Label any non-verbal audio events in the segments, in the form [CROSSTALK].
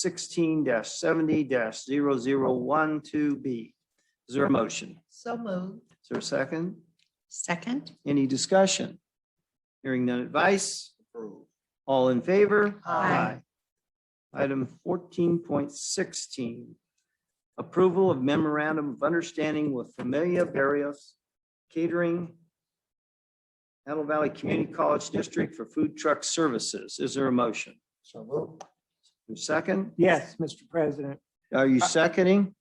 sixteen seventy one two B. Is there a motion? So moved. Is there a second? Second. Any discussion? Hearing none advice? All in favor? Aye. Item fourteen point sixteen. Approval of memorandum of understanding with Familia Barrios Catering, Antelope Valley Community College District for Food Truck Services. Is there a motion? So moved. Your Second? Yes, Mr. President. Are you seconding?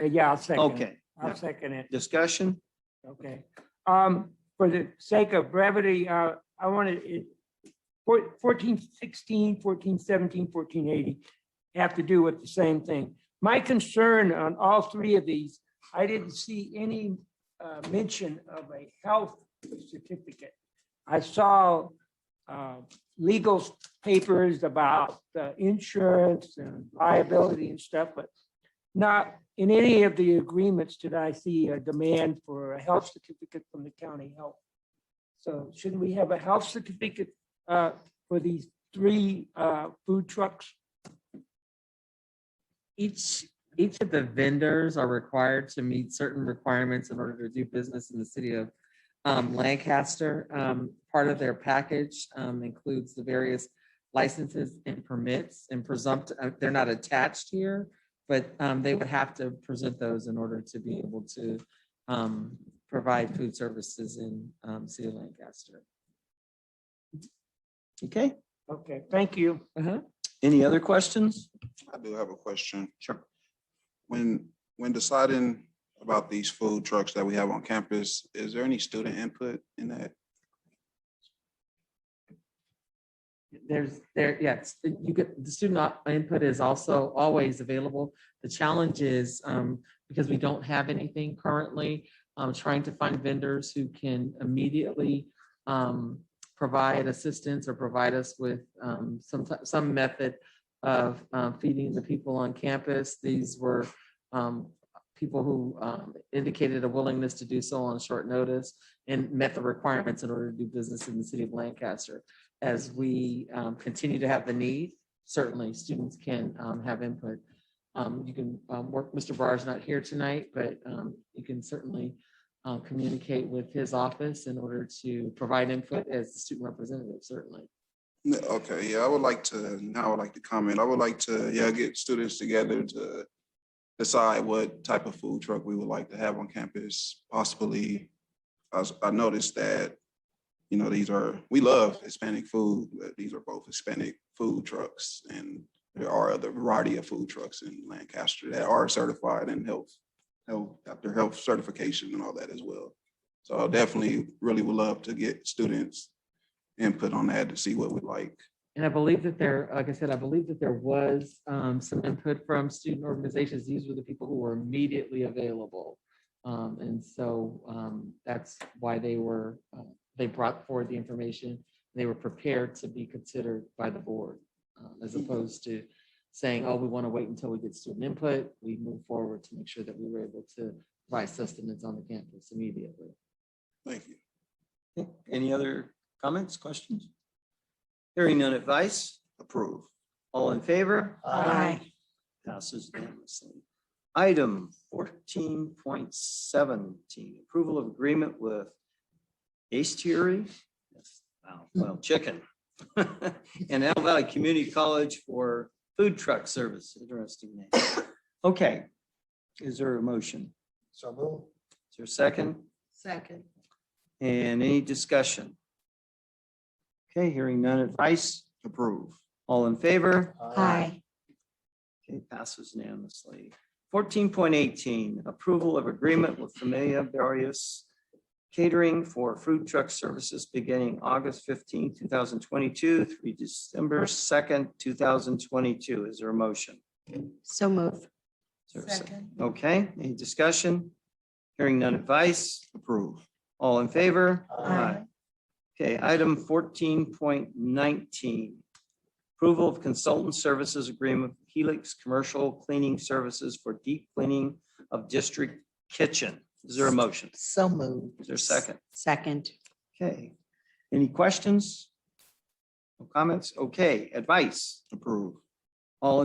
Uh, Yeah, I'll second. it. Okay, I'll second it. discussion? Okay. Um, for the sake of brevity, uh, I wanted it, four- fourteen sixteen, fourteen seventeen, fourteen eighty have to do with the same thing. My concern on all three of these, I didn't see any, uh, mention of a health certificate. I saw, uh, legal papers about uh, insurance and liability and stuff, but not in any of the agreements did I see a demand for a health certificate from the county health. So shouldn't we have a health certificate uh, for these three uh, food trucks? Each, each of the vendors are required to meet certain requirements in order to do business in the city of um, Lancaster. Um, Part of their package um, includes the various licenses and permits and presumptive, they're not attached here, but um, they would have to present those in order to be able to um, provide food services in um, city of Lancaster. Okay, Okay, thank you. Uh-huh. any other questions? I do have a question. Sure. When, when deciding about these food trucks that we have on campus, is there any student input in that? There's, there, yes, you get, the student op- input is also always available. The challenge is, um, because we don't have anything currently, um, trying to find vendors who can immediately, um, provide assistance or provide us with, um, some, ti- some method of, um, feeding the people on campus. These were, um, people who, um, indicated a willingness to do so on short notice and met the requirements in order to do business in the city of Lancaster as we um, continue to have the need, certainly students can um, have input. Um, You can um, work, Mr. Barr is not here tonight, but um, you can certainly uh, communicate with his office in order to provide input as the student representative, certainly. No, Okay, yeah, I would like to, now I would like to comment. I would like to, yeah, get students together to decide what type of food truck we would like to have on campus, possibly. I, s- I noticed that, you know, these are, we love Hispanic food, but these are both Hispanic food trucks. And there are other variety of food trucks in Lancaster that are certified and health, health, after health certification and all that as well. So I definitely really would love to get students input on that to see what we like. And I believe that there, like I said, I believe that there was um, some input from student organizations. These were the people who were immediately available. Um, And so um, that's why they were, uh, they brought forward the information. They were prepared to be considered by the board um, as opposed to saying, oh, we want to wait until we get student input. We move forward to make sure that we were able to provide sustenance on the campus immediately. Thank you. Okay, Any other comments, questions? Hearing none advice? Approve. All in favor? Aye. Passes unanimously. Item fourteen point seventeen, approval of agreement with Astieri. Wow, well, chicken. [LAUGHS] And Antelope Valley Community College for food truck service, interesting name. Okay, is there a motion? So move. Is there a second? Second. And any discussion? Okay, hearing none advice? Approve. All in favor? Aye. Okay, passes unanimously. Fourteen point eighteen, approval of agreement with Familia Barrios Catering for Food Truck Services beginning August 15, thousand twenty-two through December second, two thousand twenty-two. Is there a motion? So moved. Is there a sec- Okay, any discussion? Hearing none advice? Approve. All in favor? Aye. Okay, item fourteen point nineteen. Approval of consultant services agreement with Helix Commercial Cleaning Services for deep cleaning of district kitchen. Is there a motion? So moved. Is there a second? Second. Okay. Any questions? No comments? Okay, advice. Approve. All in